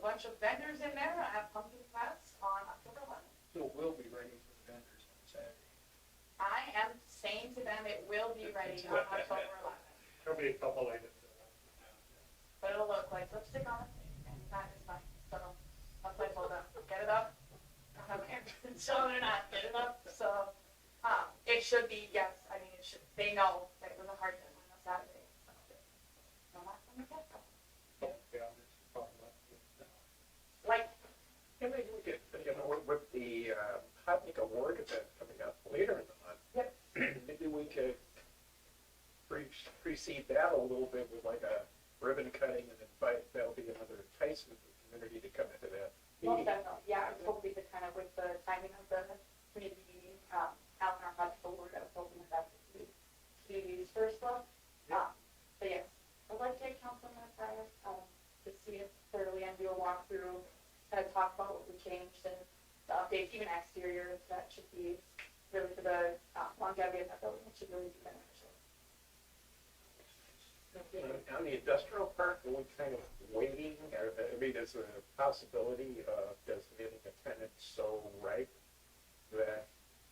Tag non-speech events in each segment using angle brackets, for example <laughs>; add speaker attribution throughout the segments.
Speaker 1: bunch of vendors in there, I have pumpkin fest on October eleventh.
Speaker 2: So we'll be ready for the vendors on Saturday.
Speaker 1: I am saying to them, it will be ready on October eleventh,
Speaker 3: There'll be a couple items.
Speaker 1: but it'll look like lipstick on it, and that is fine, so, I'm like, hold up, get it up. I don't <laughs> care if it's shown or not, get it up, so, um, it should be, yes, I mean, it should, they know that it was a hard deadline on Saturday, so. No, not from the get-go,
Speaker 3: Yeah, it's probably not.
Speaker 2: uh,
Speaker 1: like,
Speaker 3: And maybe we could, you know, with- with the uh, Hotnik Award event coming up later in the month. Maybe we could pre- precede that a little bit with like a ribbon cutting and invite, that'll be another enticement for the community to come into that.
Speaker 1: Most
Speaker 3: meeting.
Speaker 1: definitely, yeah, it's hopefully the kind of with the timing of the community meeting, um, Alan, our budget board, I was hoping that that would be community's first look. Um, but yes, I'd like to get council on that, um, to see it thoroughly and do a walkthrough, kind of talk about what we changed and the updates, even exteriors, that should be really for the uh, longevity of that building, it should really be beneficial.
Speaker 3: You know, On the industrial park, are we kind of waiting, Or, I mean, there's a possibility of designating a tenant so ripe that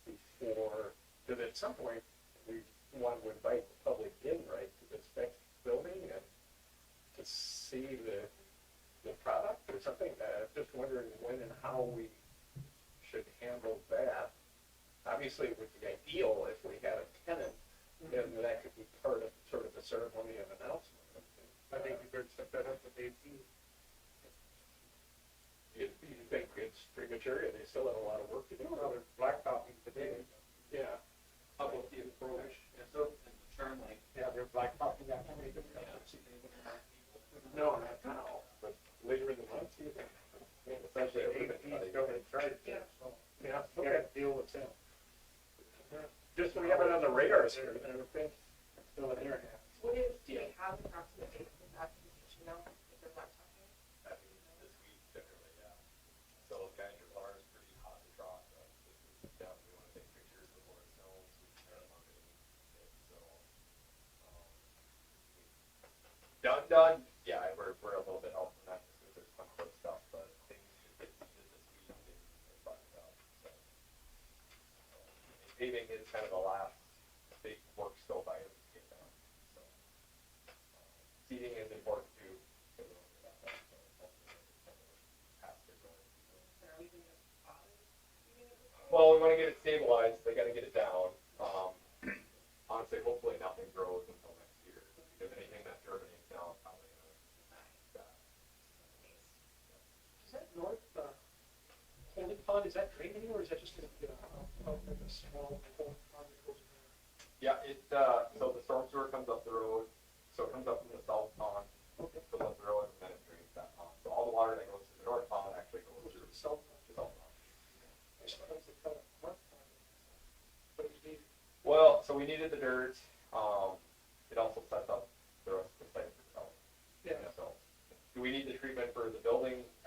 Speaker 3: before, that at some point, we want to invite the public in, right, to this next building and to see the, the product or something, uh, just wondering when and how we should handle that. Obviously, it would be ideal if we had a tenant and that could be part of sort of the ceremony of announcement.
Speaker 4: I think you better set that up with eighteen.
Speaker 3: You, you think it's premature, and they still have a lot of work to do.
Speaker 4: Another blacktopping today.
Speaker 3: Yeah.
Speaker 2: How about the approach and the uh, and the turn lane?
Speaker 4: Yeah, they're "Oh, blacktopping that many different
Speaker 2: Yeah.
Speaker 4: times.
Speaker 3: No, not now, but later in the month, you think.
Speaker 4: Especially eighteen, go ahead, try it.
Speaker 1: Yeah.
Speaker 4: So,
Speaker 3: Yeah,
Speaker 4: You
Speaker 3: okay.
Speaker 4: gotta deal with them.
Speaker 3: Just so we have it on the radar here, I would think.
Speaker 4: Still in there now.
Speaker 1: What is,
Speaker 3: do we
Speaker 1: have approximately in that communication now, if they're not talking?
Speaker 5: I mean, this week generally, yeah. So guys, your bar is pretty hot and dry, so this is down, we wanna take pictures before it snows, we can turn them on in, so. um, Done, done, yeah, we're, we're a little bit off from that, because there's some close stuff, but things should get seeded this week, and and buttoned up, so. um, Paving is kind of the last big work scope item to get done, so. um, Seeding is important too, well, we want to get it stabilized. They got to get it down. Um, honestly, hopefully nothing grows until next year. Because anything that germinates now is probably going to
Speaker 3: Is that north, uh, Holy Pond, is that drained anywhere, or is that just gonna be a, a, like a small pond that goes
Speaker 5: Yeah, it, uh, so the storm sewer comes up the road. So it comes up from the south pond,
Speaker 3: Okay.
Speaker 5: fills up the road, and then it drains that pond. So all the water that goes to the north pond actually goes
Speaker 3: to
Speaker 5: through
Speaker 3: the south?
Speaker 5: the south pond.
Speaker 3: I suppose they call it north pond. But it would be
Speaker 5: Well, so we needed the dirt. Um, it also sets up the rest of the site. itself.
Speaker 3: Yeah.
Speaker 5: So, do we need the treatment for the
Speaker 1: uh, uh, E
Speaker 3: uh,
Speaker 5: building? uh, Uh, uh,
Speaker 1: um,